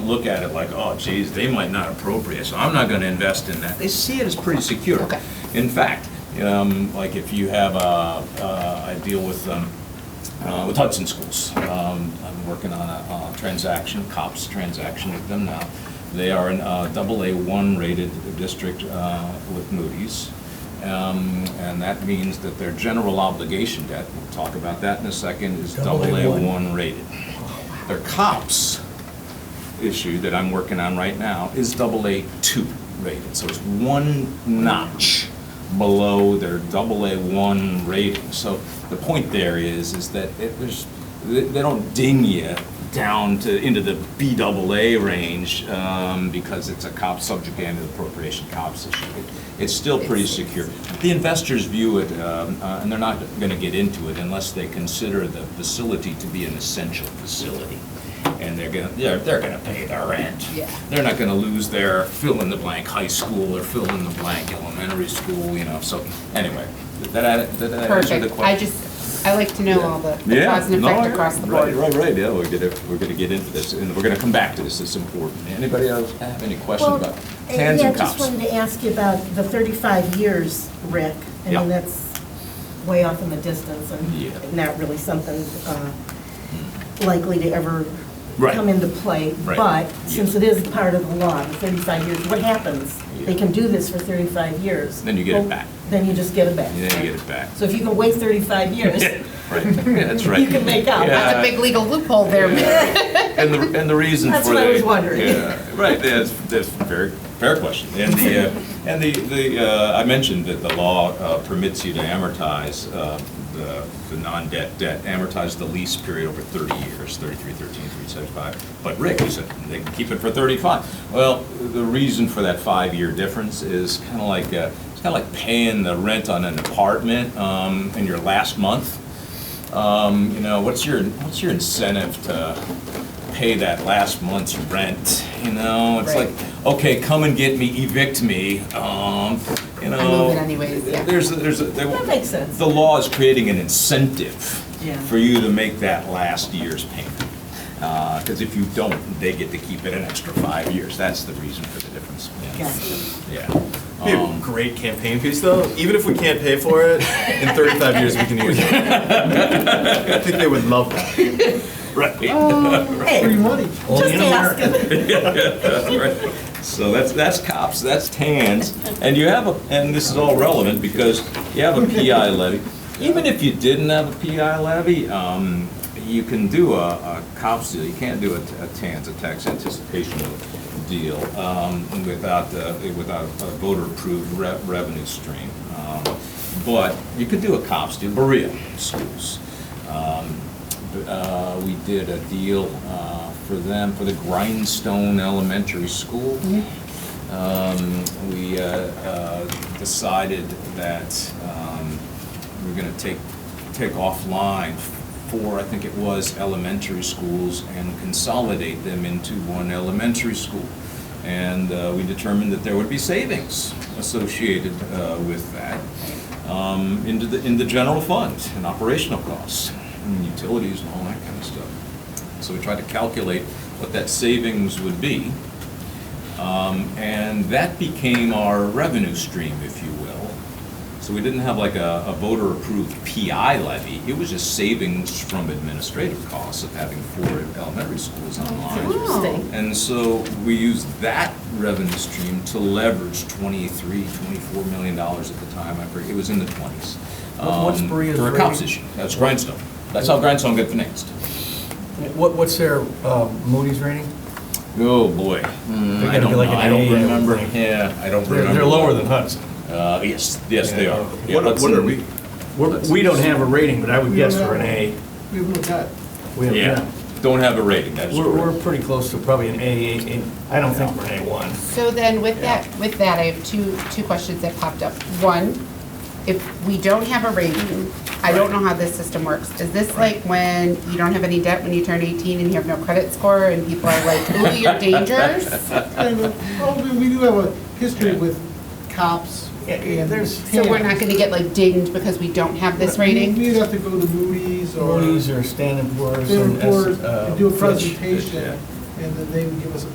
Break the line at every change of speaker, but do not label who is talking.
look at it like, oh geez, they might not appropriate, so I'm not gonna invest in that. They see it as pretty secure.
Okay.
In fact, um, like if you have a, uh, I deal with, um, uh, with Hudson Schools. Um, I'm working on a uh, transaction, COPS transaction with them now. They are an uh, double A1 rated district uh, with Moody's. Um, And that means that their general obligation debt, we'll talk about that in a second, is double A1 rated. Their COPS issue that I'm working on right now is double A2 rated. So it's one notch below their double A1 rating. So the point there is, is that it- there's, they they don't ding you down to, into the B double A range um, because it's a COPS subject and an appropriation COPS issue. It- It's still pretty secure. The investors view it, um, uh, and they're not going to get into it unless they consider the facility to be an essential facility and they're gonna, they're, they're gonna pay their rent.
Yeah.
They're not gonna lose their fill-in-the-blank high school or fill-in-the-blank elementary school, you know, so, anyway, did that, did that answer the question?
Perfect. I just, I like to know all the the
Yeah,
cause and
no,
effect
yeah,
across the
Right,
board.
right, right, yeah, we're gonna, we're gonna get into this, and we're gonna come back to this, it's important. Anybody else have any questions
Well,
about
uh,
cans
yeah, I
and
just
cups?
wanted to ask you about the 35 years, Rick. I
Yeah.
mean, that's way off in the distance
Yeah.
and not really something uh, likely to ever
Right.
come into play.
Right.
But
Yeah.
since it is part of the law, the 35 years, what happens? They
Yeah.
can do this for 35 years.
Then you get it
Well,
back.
Then you just get it back.
And Then you get it back.
So if you can wait 35 years,
Right, that's right.
you can make up.
Yeah.
That's a big legal loophole there.
And the, and the reason for that.
That's what I was wondering.
Yeah, right, that's, that's a very fair question. And the, uh, and the, the, uh, I mentioned that the law uh, permits you to amortize uh, the, the non-debt debt, amortize the lease period over 30 years, 33, 13, 375. But Rick, you said they can keep it for 35. Well, the reason for that five-year difference is kind of like, uh, it's kind of like paying the rent on an apartment um, in your last month. Um, You know, what's your, what's your incentive to pay that last month's rent, you know? It's like,
Right.
okay, come and get me, evict me, um, you know?
moving anyways, yeah.
There's, there's.
That
That
makes sense.
The law is creating an incentive
Yeah.
for you to make that last year's payment. Because if you don't, they get to keep it an extra five years. That's the reason for the difference. Yeah.
Gotcha.
Yeah.
Be a great campaign piece, though. Even if we can't pay for it, in 35 years we can use it. I think they would love that.
Right.
Hey,
money.
just ask
So that's, that's cops, that's TANs, and you have a, and this is all relevant because you have a PI levy. Even if you didn't have a PI levy, um, you can do a, a cops deal, you can't do a, a TANs, a tax anticipation deal, um, without, the- without a voter-approved re- revenue stream. Um, But you could do a cops deal, Berea schools. Uh, we did a deal uh, for them, for the Grindstone Elementary School. Um, We uh, uh, decided that um, we're going to take, take offline four, I think it was, elementary schools and consolidate them into one elementary school. And uh, we determined that there would be savings associated uh, with that um, into the, in the general fund and operational costs and utilities and all that kind of stuff. So we tried to calculate what that savings would be. Um, and that became our revenue stream, if you will. So we didn't have like a, a voter-approved PI levy. It was just savings from administrative costs of having four elementary schools online.
Interesting.
And so we used that revenue stream to leverage 23, 24 million dollars at the time, I forget, it was in the 20s.
What- what's
um,
Berea's
For a COPS
rating?
issue, that's Grindstone. That's how Grindstone got financed.
What, what's their um, Moody's rating?
Oh, boy.
They're
I
gonna
don't
be
know,
like an
I
A, I
don't
would
remember,
think.
yeah, I don't
They're-
remember.
they're lower than Hudson.
Uh, yes, yes, they
Yeah.
are. Yeah,
What,
Hudson-
what are we?
We're- We don't have a rating, but I would guess we're an A.
We would have.
We have-
Yeah, don't have a rating, that is
We're, we're
correct.
pretty close to probably an A, A, A. I don't think we're an A1.
So then with that, with that, I have two, two questions that popped up. One, if we don't have a rating, I don't know how this system works. Is this like when you don't have any debt when you turn 18 and you have no credit score and people are like, ooh, you're dangerous?
kind of, well, uh, we- we do have a history with cops
Yeah, yeah,
and
there's-
So we're not
TANs.
gonna get like dinged because we don't have this rating?
We'd have to go to Moody's or
Moody's or Standard Poor's
Standard
and S-
Poor's
uh,
and do a
Fitch.
presentation, and then they would give us a